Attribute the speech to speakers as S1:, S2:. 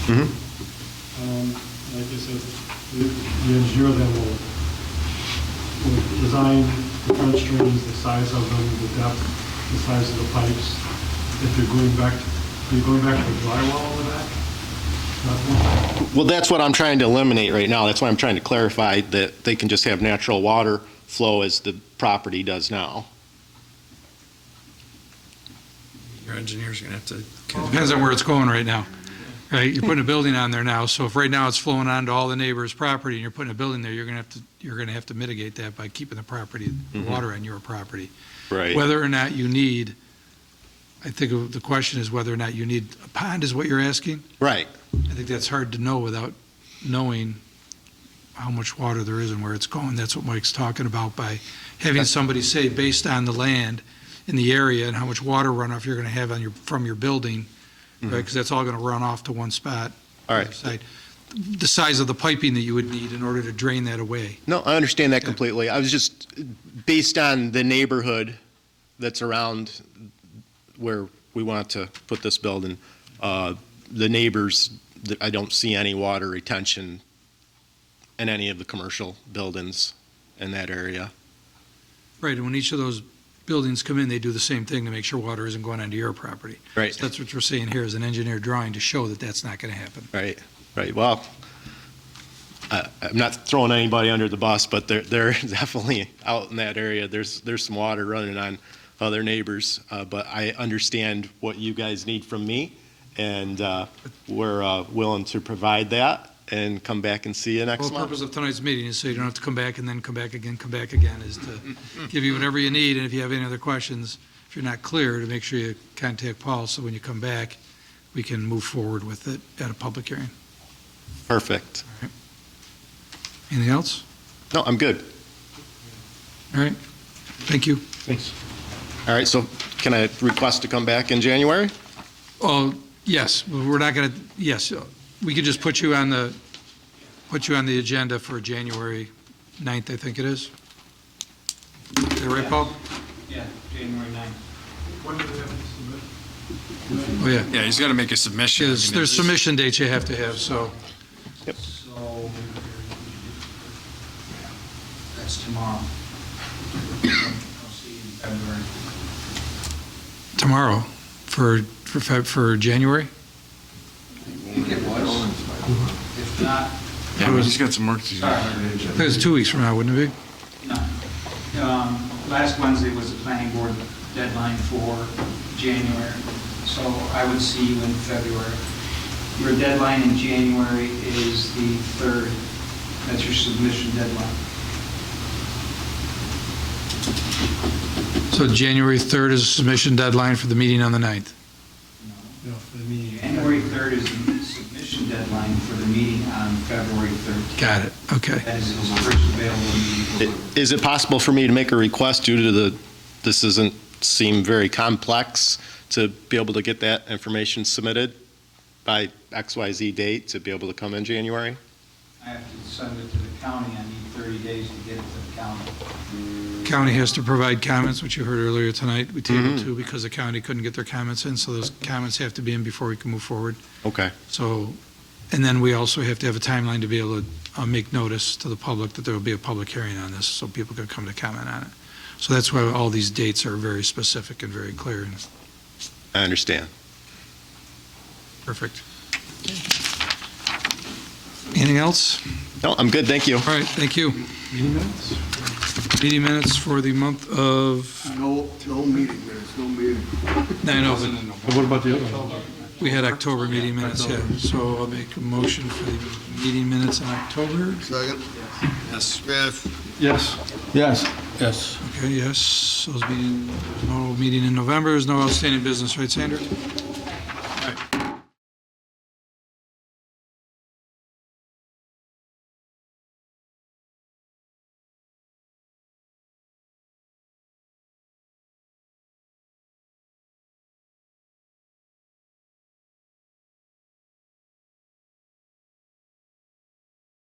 S1: Mm-hmm. Um, Like I said, the the engineer then will, will design the French drains, the size of them, the depth, the size of the pipes. If you're going back, are you going back to drywall in the back? That one?
S2: Well, that's what I'm trying to eliminate right now. That's why I'm trying to clarify that they can just have natural water flow as the property does now.
S3: Your engineer's gonna have to. Depends on where it's going right now, right? You're putting a building on there now, so if right now it's flowing onto all the neighbors' property and you're putting a building there, you're gonna have to, you're gonna have to mitigate that by keeping the property, the water on your property.
S2: Right.
S3: Whether or not you need, I think the question is whether or not you need a pond is what you're asking?
S2: Right.
S3: I think that's hard to know without knowing how much water there is and where it's going. That's what Mike's talking about by having somebody say, based on the land in the area and how much water runoff you're going to have on your, from your building, right? Because that's all going to run off to one spot.
S2: Mm-hmm. All right.
S3: Side. The size of the piping that you would need in order to drain that away.
S2: No, I understand that completely. I was just, based on the neighborhood that's around where we want to put this building, uh, the neighbors, th- I don't see any water retention in any of the commercial buildings in that area.
S3: Right, and when each of those buildings come in, they do the same thing to make sure water isn't going onto your property.
S2: Right.
S3: So that's what we're saying here is an engineer drawing to show that that's not going to happen.
S2: Right, right. Well, I- I'm not throwing anybody under the bus, but they're, they're definitely out in that area. There's, there's some water running on other neighbors, uh, but I understand what you guys need from me, and uh, we're uh, willing to provide that and come back and see you
S3: The
S2: next
S3: whole purpose
S2: month.
S3: of tonight's meeting is so you don't have to come back and then come back again, come back again, is to give you whatever you need, and if you have any other questions, if you're not clear, to make sure you contact Paul, so when you come back, we can move forward with it at a public hearing.
S2: Perfect.
S3: Anything else?
S2: No, I'm good.
S3: All right, thank you.
S1: Thanks.
S2: All right, so can I request to come back in January?
S3: Oh, yes, we're not gonna, yes, we could just put you on the, put you on the agenda for January 9th, I think it is. Is that right, Paul?
S4: Yeah, January 9th.
S1: When do we have to submit?
S3: Oh, yeah.
S5: Yeah, he's got to make a submission.
S3: There's, there's submission dates you have to have, so.
S4: So that's tomorrow. I'll see you in February.
S3: Tomorrow, for, for, Feb- for January?
S4: I think it was. If not,
S5: Yeah, but he's got some work to do.
S4: sorry.
S3: I think it's two weeks from now, wouldn't it be?
S4: No. Um, Last Wednesday was the planning board deadline for January, so I would see you in February. Your deadline in January is the 3rd. That's your submission deadline.
S3: So January 3rd is submission deadline for the meeting on the 9th.
S1: Yeah, for the meeting.
S4: January 3rd is the submission deadline for the meeting on February 13th.
S3: Got it, okay.
S4: That is the first available
S2: I-
S4: meeting.
S2: Is it possible for me to make a request due to the, this doesn't seem very complex, to be able to get that information submitted by XYZ date to be able to come in January?
S4: I have to send it to the county, I need 30 days to get it to the county.
S3: County has to provide comments, which you heard earlier tonight. We tabled
S2: Mhm.
S3: two because the county couldn't get their comments in, so those comments have to be in before we can move forward.
S2: Okay.
S3: So, and then we also have to have a timeline to be able to uh, make notice to the public that there will be a public hearing on this, so people can come to comment on it. So that's why all these dates are very specific and very clear and
S2: I understand.
S3: perfect. Anything else?
S2: No, I'm good, thank you.
S3: All right, thank you.
S1: Meeting minutes?
S3: Meeting minutes for the month of,
S6: No, no meeting minutes, no meeting.
S3: no, I know, but
S1: What about the other one?
S3: we had October meeting minutes, yeah. So I'll make a motion for the meeting minutes in October.
S6: Second?
S5: Yes.
S6: Yes.
S1: Yes. Yes. Yes.
S3: Okay, yes, those meeting, no meeting in November, there's no outstanding business, right, Sandra?